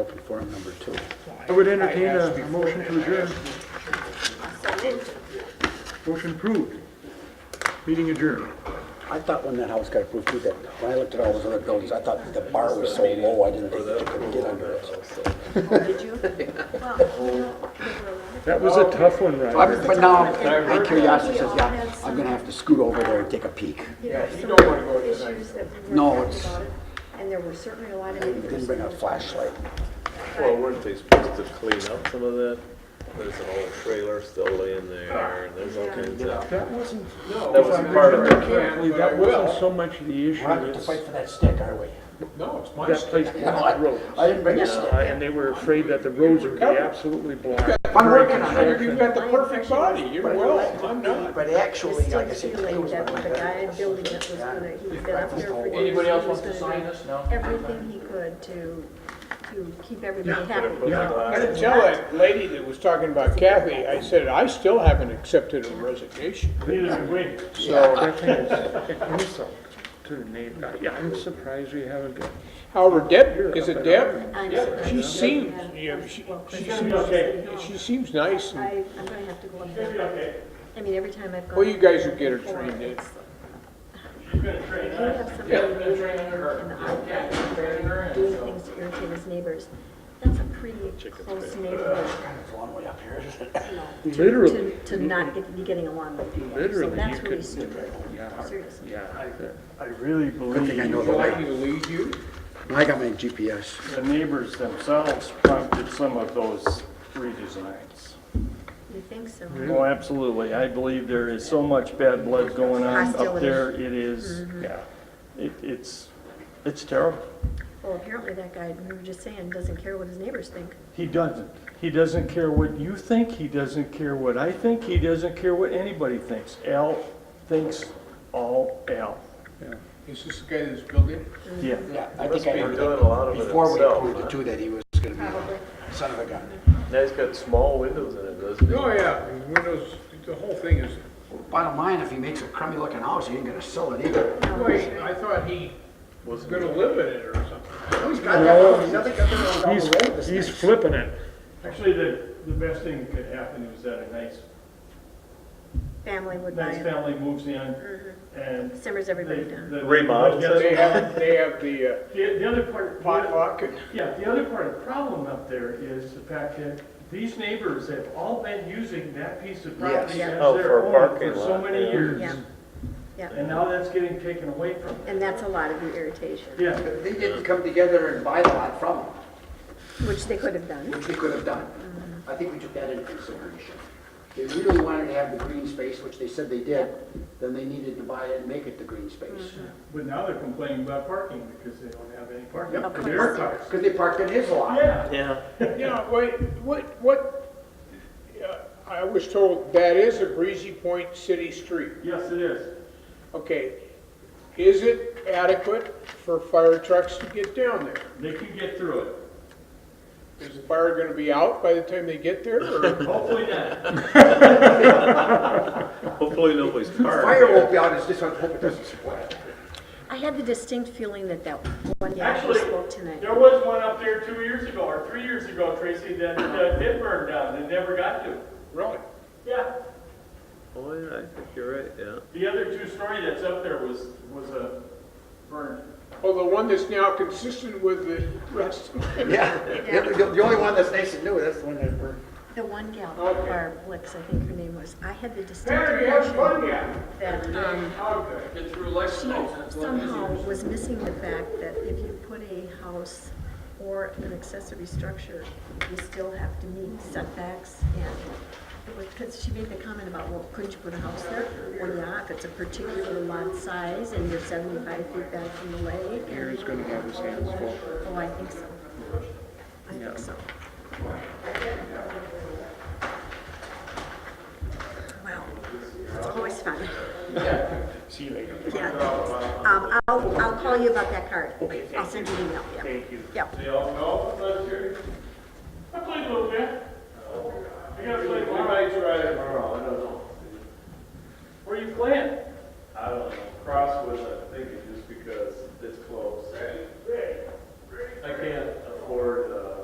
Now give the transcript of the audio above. open forum number two. I would entertain a motion to adjourn. Motion approved. Meeting adjourned. I thought when that house got approved, too, that, when I looked at all those other buildings, I thought the bar was so low, I didn't think that you could get under it. That was a tough one, But Roger. but now, my curiosity says, yeah, I'm gonna have to scoot over there and take a peek. Yeah, you don't want to go to tonight. No, it's- And there were certainly a lot of. They Didn't bring a flashlight. Well, weren't they supposed to clean up some of that? There's an old trailer still laying there, and there's all kinds of. That wasn't, That was part of it. carefully, that wasn't so much the issue as for that stick, are we? that place blocked roads. I didn't bring a Uh, stick. And they were afraid that the roads would be absolutely blocked. I'm working on it. You've got the perfect body, you're well, I'm not. But It's actually, still like I said, today feeling was my that with the guy building it was gonna, he's been up there for years. Anybody else He was wants to gonna sign do this? No? Everything he could to, to keep everybody happy. Yeah. I didn't tell that lady that was talking about Kathy, I said, I still haven't accepted her resignation. That thing is an insult to the neighbor. Yeah, I'm surprised we haven't got. However, Deb, is it Deb? I'm She surprised. seems, I'm- yeah, I'm- she, well, she I'm- seems, she seems nice, and I, I'm gonna have to go up there. I mean, every time I've gone. Well, you guys up will get her before, trained in. it's like- You have somebody who's in the odd, doing things to irritate his neighbors. That's a pretty close neighborhood. It's a long way up here, isn't it? to- Literally. To, to not get, be getting along with people. Literally, So you that's really could- stupid, seriously. Yeah. I really Good thing I believe know the way. will lead you. I got my GPS. the neighbors themselves prompted some of those redesigns. You think so? Oh, absolutely. I believe there is so much bad blood going on up Hostility. there. It is, yeah, it, it's, it's terrible. Well, apparently that guy, we were just saying, doesn't care what his neighbors think. He doesn't. He doesn't care what you think. He doesn't care what I think. He doesn't care what anybody thinks. Al thinks all Al. Is this the guy that's building? Yeah. Yeah, I Must think be I heard that doing a lot of it before we himself, approved it huh? too, that he was gonna be a son of a gun. Now he's got small windows in it, doesn't he? Oh, yeah, his windows, the whole thing is, Bottom line, if he makes a crummy looking house, he ain't gonna sell it either. wait, I thought he was gonna live in it or something. He's, he's flipping it. Actually, the, the best thing that could happen is that a nice, Family would buy nice it, family moves in Mm-hmm. and simmers everybody down. Remodels it. They have, they have the uh, The, the other part, potluck and. yeah, the other part of the problem up there is the fact that these neighbors have all been using that piece of property Yes. as Oh, for their a own parking for so lot, many yeah. years. Yeah, yeah, And now that's getting taken away from them. and that's a lot of the irritation, Yeah, They didn't come together and buy the lot from him, which they could have done. which they could have done. I think we took that into consideration. They really wanted to have the green space, which they said they did, then they needed to buy it and make it the green space. but now they're complaining about parking because they don't have any parking. Yep, Of because they were course. cars, because they parked in his lot. Yeah. Yeah. You know, wait, what, what, uh, I was told that is a Breezy Point city street. Yes, it is. Okay, is it adequate for fire trucks to get down there? They can get through it. Is the fire gonna be out by the time they get there, or? Hopefully not. Hopefully nobody's car. Fire won't be out, it's just, I hope it doesn't spoil. I had the distinct feeling that that one guy we Actually, spoke tonight. there was one up there two years ago, or three years ago, Tracy, that uh, did burn down and never got to. Really? Yeah, Oh, yeah, I think you're right, yeah. the other two-story that's up there was, was a burned. Well, the one that's now consistent with the rest. Yeah, the, the- the only one that's nice and new, that's the one that we're. The one gal, Okay. Barb Blix, I think her name was, I had the distinct Hey, you have impression fun yet? that, um, Okay. She somehow was missing the fact that if you put a house or an accessory structure, you still have to meet setbacks and, because she made the comment about, well, couldn't you put a house there? Well, yeah, if it's a particular lot size and you're seventy-five feet back from the lake. He's gonna have his hands full. Oh, I think so. I think so. Wow, it's always fun. See you later. Yeah, thanks. Um, I'll, I'll call you about that card. Okay, I'll send you an email, yeah. Thank you. Yep. They all know? Oh, uh,